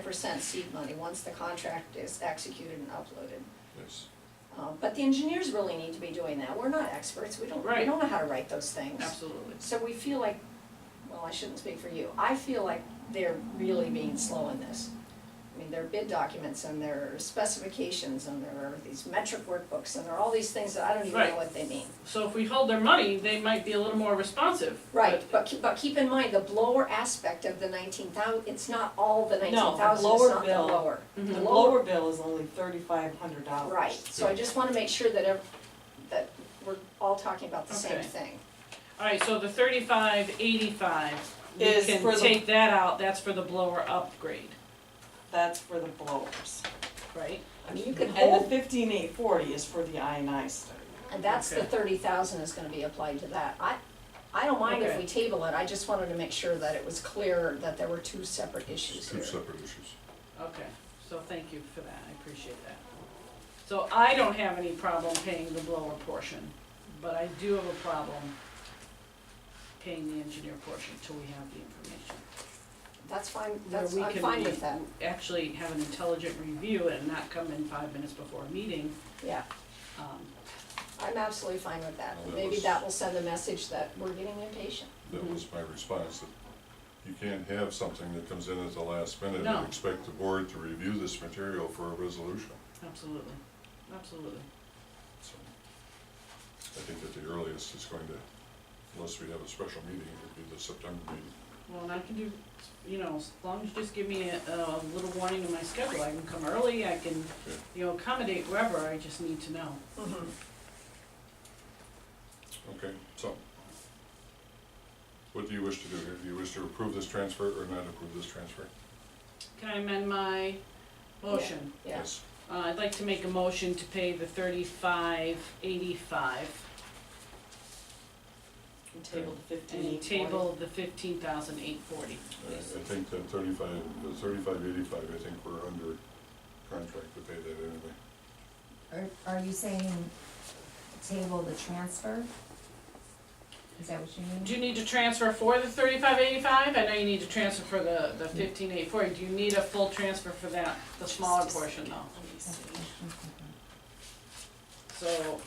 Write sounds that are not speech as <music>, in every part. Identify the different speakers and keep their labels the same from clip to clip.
Speaker 1: percent seed money once the contract is executed and uploaded.
Speaker 2: Yes.
Speaker 1: Uh, But the engineers really need to be doing that, we're not experts, we don't, we
Speaker 3: Right.
Speaker 1: don't know how to write those things.
Speaker 3: Absolutely.
Speaker 1: So we feel like, well, I shouldn't speak for you, I feel like they're really being slow in this. I mean, there are bid documents and there are specifications and there are these metric workbooks and there are all these things that I don't even know
Speaker 3: Right.
Speaker 1: what they mean.
Speaker 3: So if we hold their money, they might be a little more responsive.
Speaker 1: Right, but keep, but keep in mind, the blower aspect of the nineteen thou, it's not all the nineteen thousand, it's
Speaker 4: blower
Speaker 1: not the
Speaker 4: bill-
Speaker 1: lower.
Speaker 3: Mhm.
Speaker 4: The lower bill is only thirty-five hundred dollars.
Speaker 1: Right, so I just wanna make sure that ev- that we're all talking about the same
Speaker 3: Okay.
Speaker 1: thing.
Speaker 3: Alright, so the thirty-five eighty-five, we
Speaker 4: Is for
Speaker 3: can
Speaker 4: the-
Speaker 3: take that out, that's for the blower upgrade,
Speaker 4: That's for the blowers.
Speaker 3: right?
Speaker 1: I mean, you could
Speaker 4: And the
Speaker 1: hold,
Speaker 4: fifteen eight forty is for the INI study.
Speaker 1: and that's the
Speaker 3: Okay.
Speaker 1: thirty thousand is gonna be applied to that. I, I don't mind if
Speaker 3: Okay.
Speaker 1: we table it, I just wanted to make sure that it was clear that there were two separate issues
Speaker 2: Two
Speaker 1: here.
Speaker 2: separate issues.
Speaker 3: Okay, so thank you for that, I appreciate that. So I don't have any problem paying the blower portion, but I do have a problem paying the engineer portion till we have the information.
Speaker 1: That's fine,
Speaker 3: Where
Speaker 1: that's,
Speaker 3: we
Speaker 1: I'm
Speaker 3: can
Speaker 1: fine
Speaker 3: be-
Speaker 1: with that,
Speaker 3: Actually have an intelligent review and not come in five minutes before a meeting,
Speaker 1: yeah,
Speaker 3: um,
Speaker 1: I'm absolutely fine with that.
Speaker 2: Well, that
Speaker 1: Maybe
Speaker 2: was-
Speaker 1: that will send a message that we're getting impatient.
Speaker 2: That was my response, that you can't have something that comes in at the last minute
Speaker 3: No.
Speaker 2: and expect the board to review this material for a resolution.
Speaker 3: absolutely, absolutely.
Speaker 2: So I think at the earliest, it's going to, unless we have a special meeting, it would be the September meeting.
Speaker 3: Well, and I can do, you know, as long as you just give me a, a little warning in my schedule, I can come early, I can,
Speaker 2: Yeah.
Speaker 3: you know, accommodate wherever, I just need to know.
Speaker 1: Mm-hmm.
Speaker 2: Okay, so what do you wish to do here? Do you wish to approve this transfer or not approve this transfer?
Speaker 3: Can I amend my motion?
Speaker 1: Yeah,
Speaker 2: Yes.
Speaker 3: Uh, I'd like to make a motion to pay the thirty-five eighty-five
Speaker 4: And table the fifteen
Speaker 3: and
Speaker 4: eight forty.
Speaker 3: table the fifteen thousand eight forty.
Speaker 2: I I think that thirty-five, the thirty-five eighty-five, I think we're under contract to pay that anyway.
Speaker 5: Are, are you saying table the transfer? Is that what you mean?
Speaker 3: Do you need to transfer for the thirty-five eighty-five? I know you need to transfer for the, the fifteen eight forty. Do you need a full transfer for that, the smaller portion though? So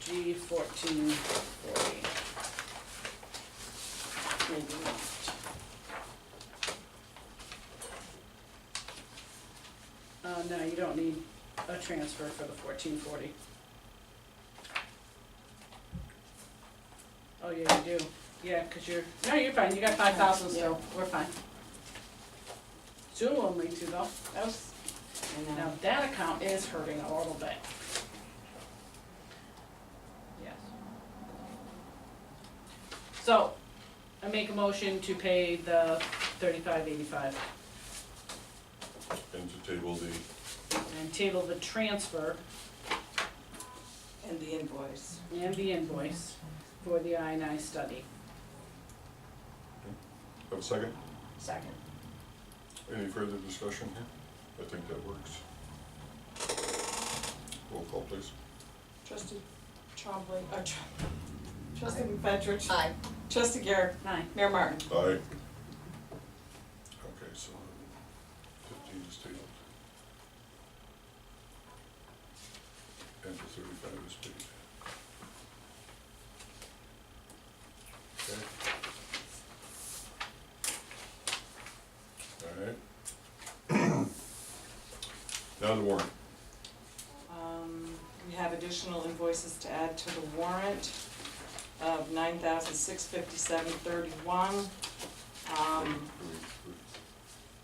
Speaker 3: G fourteen forty. Maybe not. Uh, no, you don't need a transfer for the fourteen forty. Oh, yeah, you do, yeah, cause you're, no, you're fine, you got five thousand still, we're fine. Soon we'll need to though, that was,
Speaker 4: I know.
Speaker 3: now that account is hurting a little bit. Yes. So, I make a motion to pay the thirty-five eighty-five
Speaker 2: And to table the
Speaker 3: and table the transfer
Speaker 4: And the invoice.
Speaker 3: and the invoice for the I and I study.
Speaker 2: Have a second?
Speaker 1: second.
Speaker 2: Any further discussion here? I think that works. Roll call, please.
Speaker 4: Trustee Trombley, uh, Tr- trustee McFetrich,
Speaker 1: Aye.
Speaker 4: trustee Garrett,
Speaker 3: Aye.
Speaker 4: Mayor Martin.
Speaker 2: Aye. Okay, so um, fifteen is tabled. And the thirty-five is paid. Okay. All right. <clears throat> Now the warrant.
Speaker 4: Um, we have additional invoices to add to the warrant of nine thousand six fifty-seven thirty-one. Um,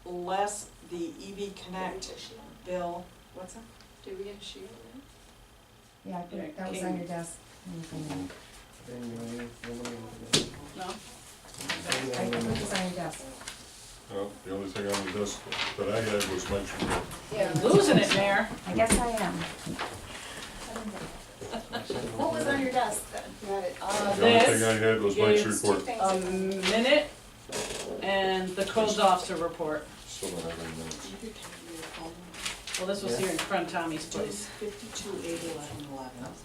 Speaker 4: less the EV Connect bill, what's that?
Speaker 1: Did we get a sheet on
Speaker 5: Yeah, I
Speaker 3: Yeah,
Speaker 5: think that was on your desk. Mhm.
Speaker 3: No?
Speaker 5: I think it was on your desk.
Speaker 2: Well, the only thing on the desk that I had was mentioned.
Speaker 1: Yeah.
Speaker 3: Losing it, Mayor.
Speaker 5: I guess I am. What was on your desk then?
Speaker 1: Got it.
Speaker 3: Uh,
Speaker 2: The only thing I
Speaker 3: This
Speaker 2: had was Mike's
Speaker 3: is-
Speaker 2: report.
Speaker 3: a minute and the codes officer report.
Speaker 2: Still don't have any minutes.
Speaker 4: You could have your phone.
Speaker 3: Well, this was here in front of Tommy's place.
Speaker 4: Fifty-two eight eleven eleven. That's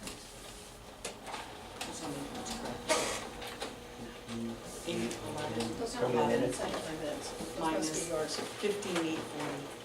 Speaker 4: on the first page. Eight eleven,
Speaker 1: Those are my minutes, I have my minutes. Those
Speaker 4: Mine
Speaker 1: must
Speaker 4: is-
Speaker 1: be yours.
Speaker 4: fifteen eight forty.